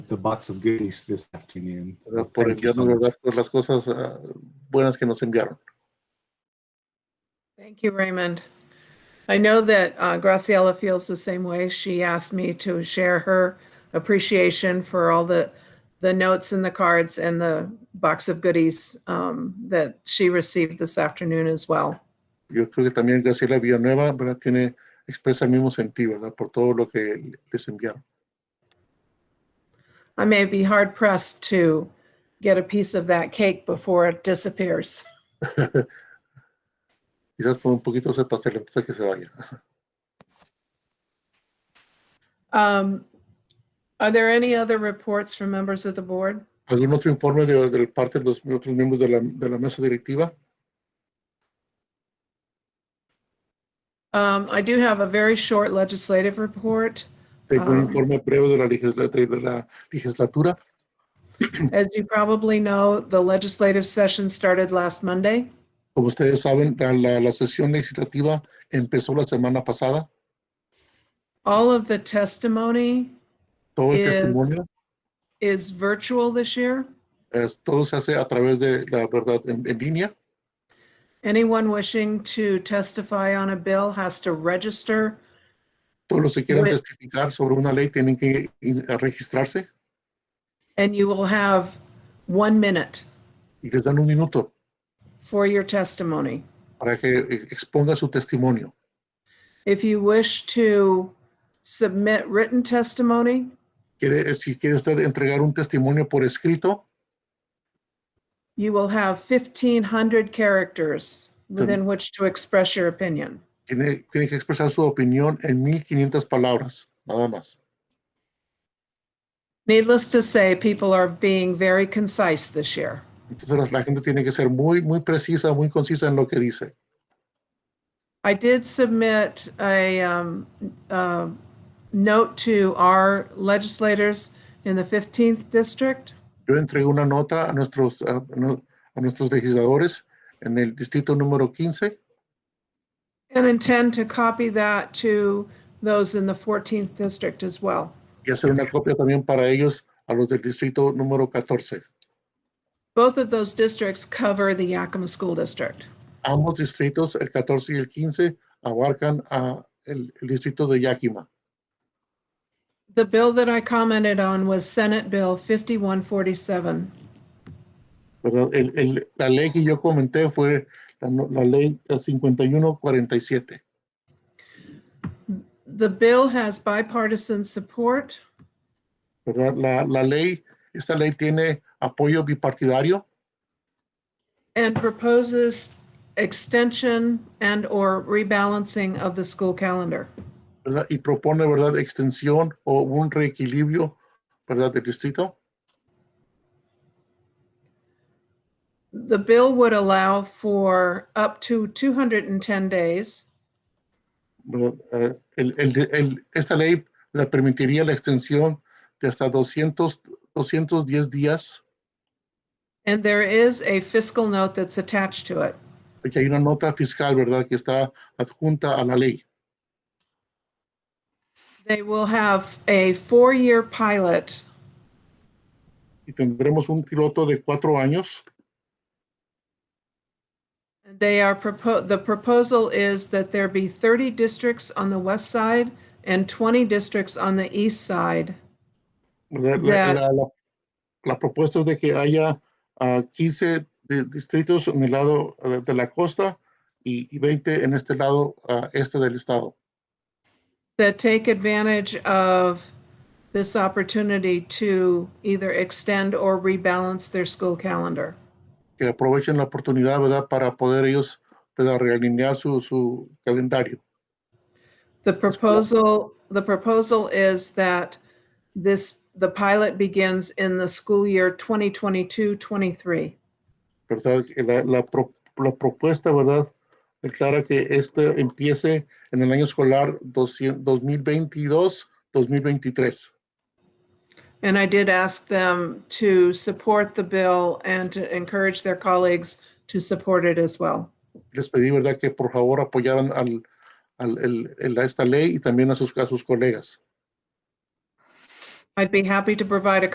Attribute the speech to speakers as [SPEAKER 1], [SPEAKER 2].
[SPEAKER 1] the box of goodies this afternoon.
[SPEAKER 2] ¿verdad?
[SPEAKER 1] So
[SPEAKER 2] por
[SPEAKER 1] thank you so much.
[SPEAKER 2] enviarnos ¿verdad? por las cosas ah, buenas que nos enviaron.
[SPEAKER 3] Thank you, Raymond. I know that uh, Graciela feels the same way. She asked me to share her appreciation for all the, the notes and the cards and the box of goodies um, that she received this afternoon as well.
[SPEAKER 2] Yo creo que también Graciela Villanueva ¿verdad? Tiene, expresa el mismo sentido ¿verdad? por todo lo que les enviaron.
[SPEAKER 3] I may be hard pressed to get a piece of that cake before it disappears.
[SPEAKER 2] Quizás tome un poquito ese pastel antes de que se vaya.
[SPEAKER 3] Um, Are there any other reports from members of the board?
[SPEAKER 2] ¿Algún otro informe de, de parte de los otros miembros de la, de la mesa directiva?
[SPEAKER 3] Um, I do have a very short legislative report.
[SPEAKER 2] Tengo un
[SPEAKER 3] Ah.
[SPEAKER 2] informe breve de la, legisla- de la legislatura.
[SPEAKER 3] As you probably know, the legislative session started last Monday.
[SPEAKER 2] Como ustedes saben, la- la, la sesión legislativa empezó la semana pasada.
[SPEAKER 3] All of the testimony
[SPEAKER 2] Todo el
[SPEAKER 3] Es-
[SPEAKER 2] testimonio,
[SPEAKER 3] is virtual this year.
[SPEAKER 2] es- todo se hace a través de la verdad en, en línea.
[SPEAKER 3] Anyone wishing to testify on a bill has to register.
[SPEAKER 2] Todos los que quieran
[SPEAKER 3] Bueno.
[SPEAKER 2] testificar sobre una ley tienen que in- a registrarse
[SPEAKER 3] And you will have one minute
[SPEAKER 2] y les dan un minuto
[SPEAKER 3] for your testimony.
[SPEAKER 2] para que eh, exponga su testimonio.
[SPEAKER 3] If you wish to submit written testimony,
[SPEAKER 2] Quiere, eh, si quiere usted entregar un testimonio por escrito,
[SPEAKER 3] you will have 1,500 characters within which to express your opinion.
[SPEAKER 2] tiene, tiene que expresar su opinión en 1500 palabras, nada más.
[SPEAKER 3] Needless to say, people are being very concise this year.
[SPEAKER 2] Entonces la, la gente tiene que ser muy, muy precisa, muy concisa en lo que dice.
[SPEAKER 3] I did submit a um, uh, note to our legislators in the 15th district.
[SPEAKER 2] Yo entregué una nota a nuestros, a, no- a nuestros legisladores en el distrito número 15
[SPEAKER 3] And intend to copy that to those in the 14th district as well.
[SPEAKER 2] y hacer una copia también para ellos a los del distrito número 14.
[SPEAKER 3] Both of those districts cover the Yakima School District.
[SPEAKER 2] Ambos distritos, el 14 y el 15, abarcan a el, el distrito de Yakima.
[SPEAKER 3] The bill that I commented on was Senate Bill 5147.
[SPEAKER 2] ¿verdad? El- el- la ley que yo comenté fue la, no- la ley 5147.
[SPEAKER 3] The bill has bipartisan support.
[SPEAKER 2] ¿verdad? La, la ley, esta ley tiene apoyo bipartidario
[SPEAKER 3] And proposes extension and/or rebalancing of the school calendar.
[SPEAKER 2] ¿verdad? y propone ¿verdad? extensión o un reequilibrio ¿verdad? del distrito.
[SPEAKER 3] The bill would allow for up to 210 days
[SPEAKER 2] ¿verdad? Eh, el- el- el- esta ley le permitiría la extensión de hasta 200, 210 días,
[SPEAKER 3] and there is a fiscal note that's attached to it.
[SPEAKER 2] porque hay una nota fiscal ¿verdad? que está adjunta a la ley.
[SPEAKER 3] They will have a four-year pilot
[SPEAKER 2] Y tendremos un piloto de cuatro años
[SPEAKER 3] They are propo, the proposal is that there be 30 districts on the west side and 20 districts on the east side.
[SPEAKER 2] ¿verdad? La,
[SPEAKER 3] Ya.
[SPEAKER 2] la- la- la propuesta es de que haya ah, 15 de- distritos en el lado eh, de la costa y, y 20 en este lado ah, este del estado,
[SPEAKER 3] That take advantage of this opportunity to either extend or rebalance their school calendar.
[SPEAKER 2] que aprovechen la oportunidad ¿verdad? para poder ellos ¿verdad? realinear su, su calendario.
[SPEAKER 3] The proposal, the proposal is that this, the pilot begins in the school year 2022, 23.
[SPEAKER 2] ¿verdad? Que La, la pro- la propuesta, ¿verdad? Declara que este empiece en el año escolar 2022-2023.
[SPEAKER 3] And I did ask them to support the bill and to encourage their colleagues to support it as well.
[SPEAKER 2] Les pedí, ¿verdad? Que por favor apoyaran al, al- el- el- a esta ley y también a sus, a sus colegas.
[SPEAKER 3] I'd be happy to provide a